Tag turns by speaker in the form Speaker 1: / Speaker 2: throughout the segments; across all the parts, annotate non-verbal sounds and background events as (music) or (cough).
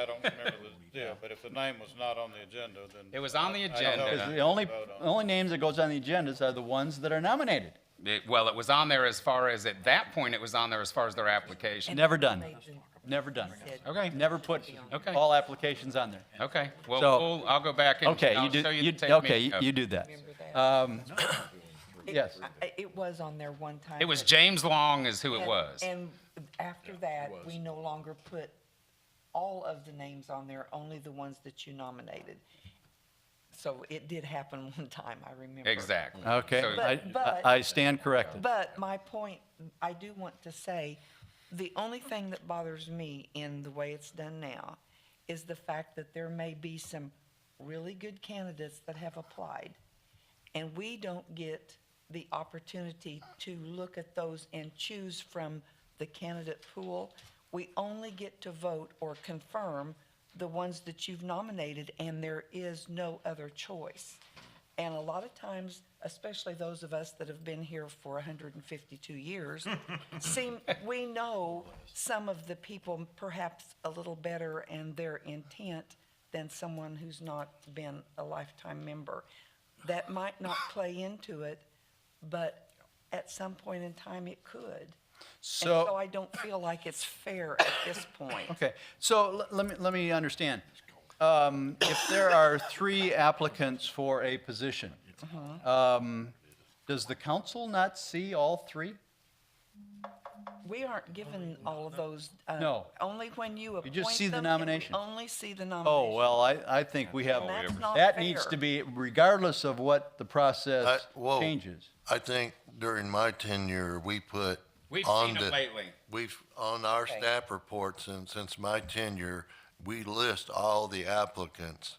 Speaker 1: I don't remember the deal, but if the name was not on the agenda,
Speaker 2: It
Speaker 1: then,
Speaker 2: was on the
Speaker 1: don't know.
Speaker 2: agenda.
Speaker 1: Yeah.
Speaker 3: The only,
Speaker 1: Vote on it.
Speaker 3: the only names that goes on the agendas are the ones that are nominated.
Speaker 2: It- Well, it was on there as far as, at that point, it was on there as far as their application.
Speaker 3: Never done. Never done.
Speaker 2: Okay,
Speaker 3: Never put
Speaker 2: Okay.
Speaker 3: all applications on there.
Speaker 2: okay. Well,
Speaker 3: So-
Speaker 2: we'll- I'll go back and
Speaker 3: Okay, you
Speaker 2: I'll
Speaker 3: do,
Speaker 2: show you
Speaker 3: you,
Speaker 2: the tape.
Speaker 3: okay,
Speaker 2: meeting.
Speaker 3: you- you do that.
Speaker 4: Remember that. (coughs)
Speaker 3: Um,
Speaker 4: It-
Speaker 3: yes.
Speaker 4: I- It was on there one time.
Speaker 2: It was
Speaker 4: but-
Speaker 2: James Long is who it
Speaker 4: and-
Speaker 2: was.
Speaker 4: And after that, we no longer put all of the names on there, only the ones that you nominated. So it did happen (laughs) one time, I remember.
Speaker 2: Exactly.
Speaker 3: Okay,
Speaker 2: So-
Speaker 3: I,
Speaker 4: but-
Speaker 3: I stand corrected.
Speaker 4: But my point, I do want to say, the only thing that bothers me in the way it's done now is the fact that there may be some really good candidates that have applied, and we don't get the opportunity to look at those and choose from the candidate pool. We only get to vote or confirm the ones that you've nominated, and there is no other choice. And a lot of times, especially those of us that have been here for 152 years, seem, we know some of the people perhaps a little better and their intent than someone who's not been a lifetime member. That might not play into it, but at some point in time, it could. And so
Speaker 3: So,
Speaker 4: I don't feel like it's fair at this point.
Speaker 3: okay, so l- let me, let me understand. Um, if there are three applicants for a position,
Speaker 4: Uh-huh.
Speaker 3: um, does the council not see all three?
Speaker 4: We aren't given all of those. uh,
Speaker 3: No.
Speaker 4: Only when you appoint them.
Speaker 3: just see the
Speaker 4: and we
Speaker 3: nomination.
Speaker 4: Only see the nomination.
Speaker 3: Oh, well, I, I think we have,
Speaker 4: And that's not
Speaker 3: that needs to
Speaker 4: fair.
Speaker 3: be, regardless of what the process
Speaker 5: I- whoa.
Speaker 3: changes.
Speaker 5: I think during my tenure, we put
Speaker 2: We've
Speaker 5: on
Speaker 2: seen
Speaker 5: the,
Speaker 2: it lately.
Speaker 5: We've on our staff reports and since my tenure, we list all the applicants.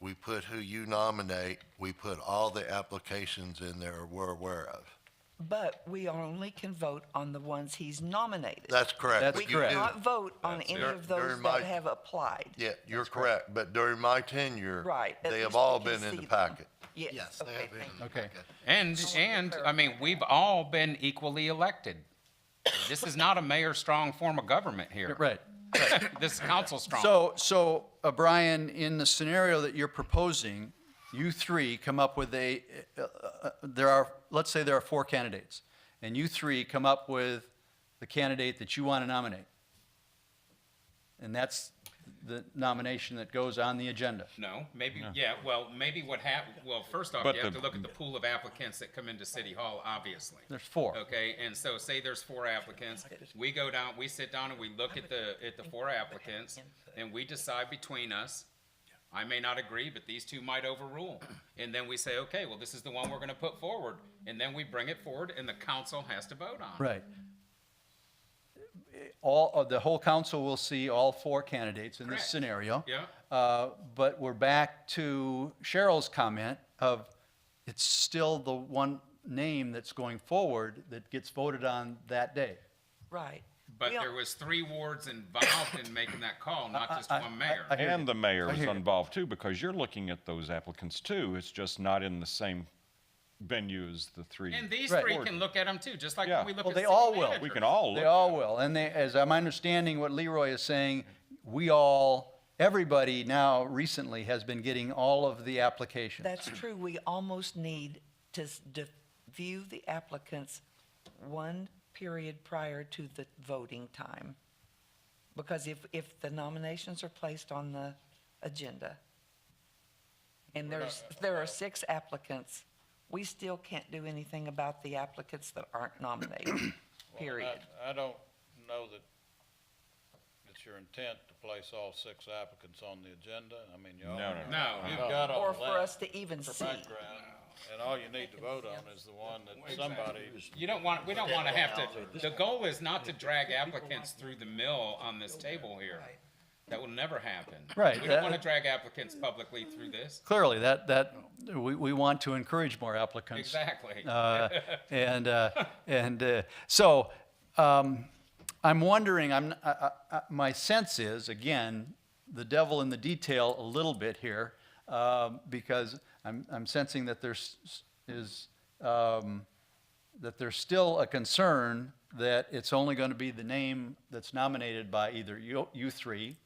Speaker 5: We put who you nominate. We put all the applications in there we're aware of.
Speaker 4: But we only can vote on the ones he's nominated.
Speaker 5: That's correct.
Speaker 3: That's
Speaker 4: We
Speaker 5: but you do-
Speaker 4: cannot vote on any
Speaker 5: it.
Speaker 4: of
Speaker 5: During
Speaker 4: those
Speaker 5: my-
Speaker 4: that have applied.
Speaker 5: Yeah, you're correct. But during my tenure,
Speaker 4: Right, at
Speaker 5: they
Speaker 4: least
Speaker 5: have
Speaker 4: we
Speaker 5: all
Speaker 4: can
Speaker 5: been in
Speaker 4: see
Speaker 5: the
Speaker 4: them.
Speaker 5: packet.
Speaker 4: Yes, okay, thank you.
Speaker 3: Okay.
Speaker 2: And, and, I mean, we've all been equally elected. This is not a mayor-strong form of government here.
Speaker 3: Right.
Speaker 2: (coughs) This is council-strong.
Speaker 3: So, so, uh, Brian, in the scenario that you're proposing, you three come up with a, uh, uh, there are, let's say there are four candidates, and you three come up with the candidate that you want to nominate. And that's the nomination that goes on the agenda.
Speaker 2: No, maybe, yeah, well, maybe what happened, well, first off,
Speaker 6: But
Speaker 2: you have to
Speaker 6: the-
Speaker 2: look at the pool of applicants that come into City Hall, obviously.
Speaker 3: There's four.
Speaker 2: Okay, and so say there's four applicants, we go down, we sit down and we look at the, at the four applicants, and we decide between us, I may not agree, but these two might overrule. And then we say, okay, well, this is the one we're gonna put forward, and then we bring it forward, and the council has to vote on. it.
Speaker 3: Right. All, uh, the whole council will see all four candidates in this
Speaker 2: Correct.
Speaker 3: scenario.
Speaker 2: Yeah.
Speaker 3: Uh, But we're back to Cheryl's comment of, it's still the one name that's going forward that gets voted on that day.
Speaker 4: Right.
Speaker 2: But
Speaker 4: We don't-
Speaker 2: there was three wards involved in making that
Speaker 3: (coughs)
Speaker 2: call, not just
Speaker 3: I-
Speaker 2: one mayor.
Speaker 3: I- I hear you.
Speaker 6: And the mayor
Speaker 3: I
Speaker 6: is
Speaker 3: hear you.
Speaker 6: involved too, because you're looking at those applicants too. It's just not in the same venue as the three.
Speaker 2: And these
Speaker 3: Right.
Speaker 2: three can look at them too, just like
Speaker 6: Yeah.
Speaker 2: when we look
Speaker 3: Well,
Speaker 2: at
Speaker 3: they
Speaker 2: city
Speaker 3: all will.
Speaker 2: managers.
Speaker 6: We can all
Speaker 3: They
Speaker 6: look.
Speaker 3: all will, and they, as I'm understanding what Leroy is saying, we all, everybody now recently has been getting all of the applications.
Speaker 4: That's true. We almost need to s- de- view the applicants one period prior to the voting time. Because if, if the nominations are placed on the agenda, and there's, there are six applicants, we still can't do anything about the applicants that aren't nominated, period.
Speaker 1: I, I don't know that it's your intent to place all six applicants on the agenda. I mean, you all.
Speaker 6: No, no,
Speaker 2: No,
Speaker 3: Uh-huh.
Speaker 1: You've got all
Speaker 4: Or
Speaker 1: that.
Speaker 4: for us to even
Speaker 1: for
Speaker 4: see.
Speaker 1: background, and all you need to vote on is the one that somebody,
Speaker 2: you don't want, we don't want to have to, the goal is not to drag applicants through the mill on this table here. That will never happen.
Speaker 3: Right,
Speaker 2: We
Speaker 3: that-
Speaker 2: don't want to drag applicants publicly through this.
Speaker 3: Clearly, that, that, we, we want to encourage more applicants.
Speaker 2: Exactly.
Speaker 3: Uh, and uh, and uh, so um, I'm wondering. I'm I, I, I- my sense is again the devil in the detail a little bit here um, because I'm I'm sensing that there's is um, that there's still a concern that it's only going to be the name that's nominated by either you you three